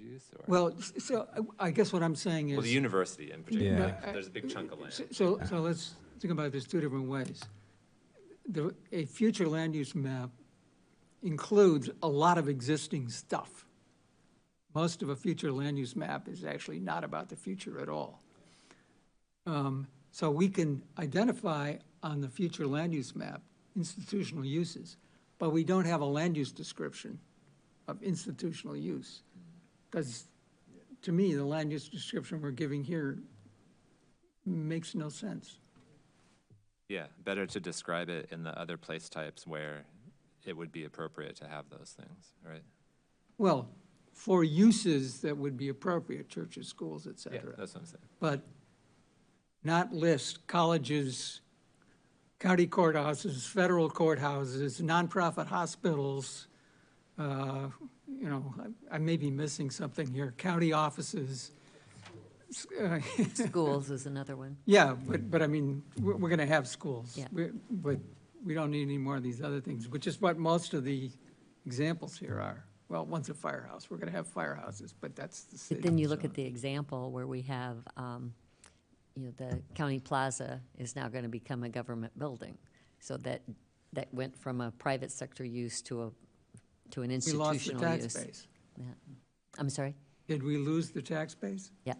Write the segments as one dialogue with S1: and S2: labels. S1: use or?
S2: Well, s- so I- I guess what I'm saying is.
S1: Well, the university in particular,
S3: Yeah.
S1: like,
S2: No, I-
S1: there's a big chunk of land.
S2: So- So, so let's think about this two different ways. The, a future land use map includes a lot of existing stuff. Most of a future land use map is actually not about the future at all. Um, So we can identify on the future land use map institutional uses, but we don't have a land use description of institutional use. Because to me, the land use description we're giving here makes no sense.
S1: Yeah, better to describe it in the other place types where it would be appropriate to have those things, right?
S2: Well, for uses that would be appropriate, churches, schools, et cetera,
S1: That's what I'm saying.
S2: but not list colleges, county courthouses, federal courthouses, nonprofit hospitals, uh, you know, I- I may be missing something here, county offices. s- uh,
S4: Schools is another one.
S2: Yeah, but, but I mean, we're, we're gonna have schools.
S4: Yeah.
S2: We- But we don't need any more of these other things, which is what most of the examples here are. Well, one's a firehouse, we're gonna have firehouses, but that's the
S4: But
S2: city.
S4: then you look
S2: so-
S4: at the example where we have, um, you know, the county plaza is now going to become a government building. So that, that went from a private sector use to a, to an
S2: We
S4: institutional
S2: lost
S4: use.
S2: the tax base.
S4: Yeah. I'm sorry?
S2: Did we lose the tax base?
S4: Yeah.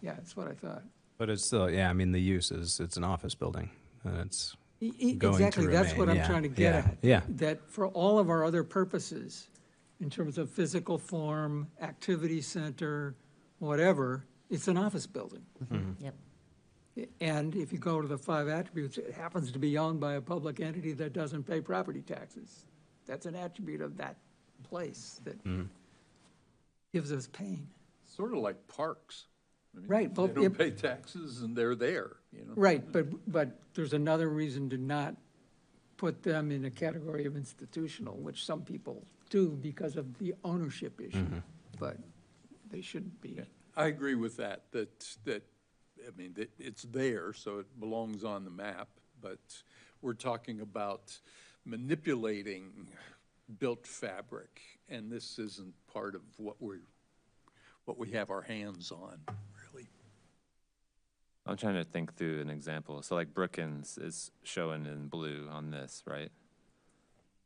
S2: Yeah, that's what I thought.
S3: But it's still, yeah, I mean, the use is, it's an office building, and it's,
S2: E- e-
S3: Going to
S2: Exactly, that's what
S3: remain,
S2: I'm
S3: yeah,
S2: trying to get
S3: yeah,
S2: at.
S3: yeah.
S2: That for all of our other purposes, in terms of physical form, activity center, whatever, it's an office building.
S4: Mm-hmm. Yep.
S2: And if you go to the five attributes, it happens to be owned by a public entity that doesn't pay property taxes. That's an attribute of that place that
S3: Mm-hmm.
S2: gives us pain.
S5: Sort of like parks. I mean,
S2: Right, well,
S5: They
S2: yep.
S5: don't pay taxes and they're there, you know?
S2: Right, but, but there's another reason to not put them in a category of institutional, which some people do because of the ownership
S3: Mm-hmm.
S2: issue, but they shouldn't be.
S5: I agree with that, that, that, I mean, that it's there, so it belongs on the map, but we're talking about manipulating built fabric, and this isn't part of what we're, what we have our hands on, really.
S1: I'm trying to think through an example. So like Brookins is shown in blue on this, right?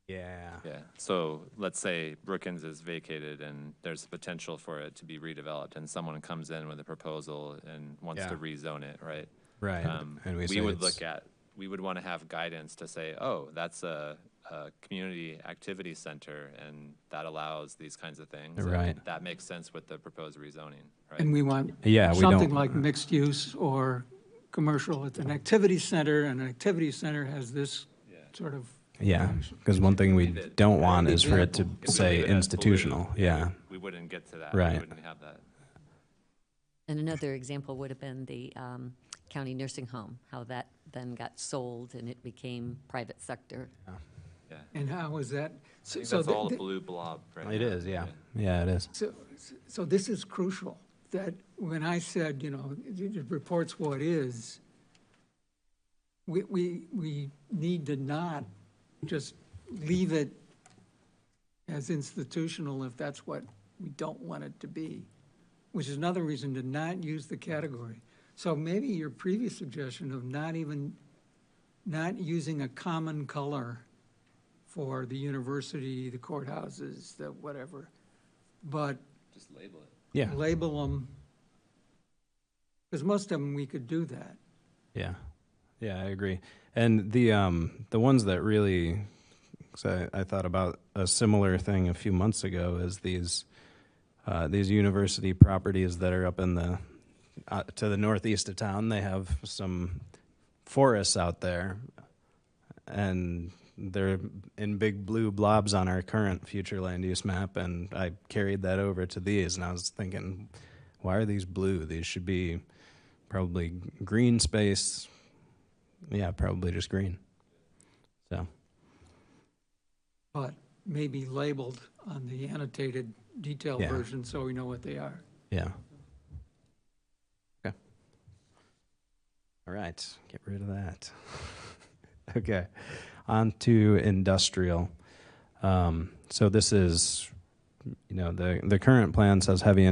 S3: yeah.
S1: Yeah, so let's say Brookins is vacated and there's potential for it to be redeveloped and someone comes in with a proposal and wants to
S3: Yeah.
S1: rezone it, right?
S3: Right,
S1: Um,
S3: and we
S1: We
S3: say
S1: would
S3: it's-
S1: look at, we would want to have guidance to say, oh, that's a, a community activity center and that allows these kinds of things. and
S3: Right.
S1: That makes sense with the proposed rezoning,
S2: And
S1: right?
S2: we want
S3: Yeah, we
S2: something
S3: don't-
S2: like mixed use or commercial. It's an activity center, and an activity center has this sort of,
S3: Yeah, because one thing we don't want is for it to
S1: If we leave
S3: say
S1: it as blue,
S3: institutional,
S1: we
S3: yeah.
S1: would- We wouldn't get to that. We
S3: Right.
S1: wouldn't have that.
S4: And another example would have been the um, county nursing home, how that then got sold and it became private sector.
S1: Yeah.
S2: and how is that? So
S1: I think
S2: so
S1: that's
S2: the-
S1: all a
S2: the-
S1: blue blob right
S3: It
S1: now.
S3: is, yeah, yeah, it is.
S2: So, so this is crucial, that when I said, you know, it it reports what is, we, we, we need to not just leave it as institutional if that's what we don't want it to be, which is another reason to not use the category. So maybe your previous suggestion of not even, not using a common color for the university, the courthouses, the whatever, but
S1: Just label it.
S3: Yeah,
S2: label them, because most of them, we could do that.
S3: yeah, yeah, I agree. And the um the ones that really, because I, I thought about a similar thing a few months ago is these uh, these university properties that are up in the uh, to the northeast of town. They have some forests out there, and they're in big blue blobs on our current future land use map. And I carried that over to these, and I was thinking, why are these blue? These should be probably green space. Yeah, probably just green. So
S2: But maybe labeled on the annotated detailed
S3: Yeah.
S2: version, so we know what they are.
S3: yeah. Okay. All right, get rid of that. okay, on to industrial. Um, so this is, you know, the the current plan says heavy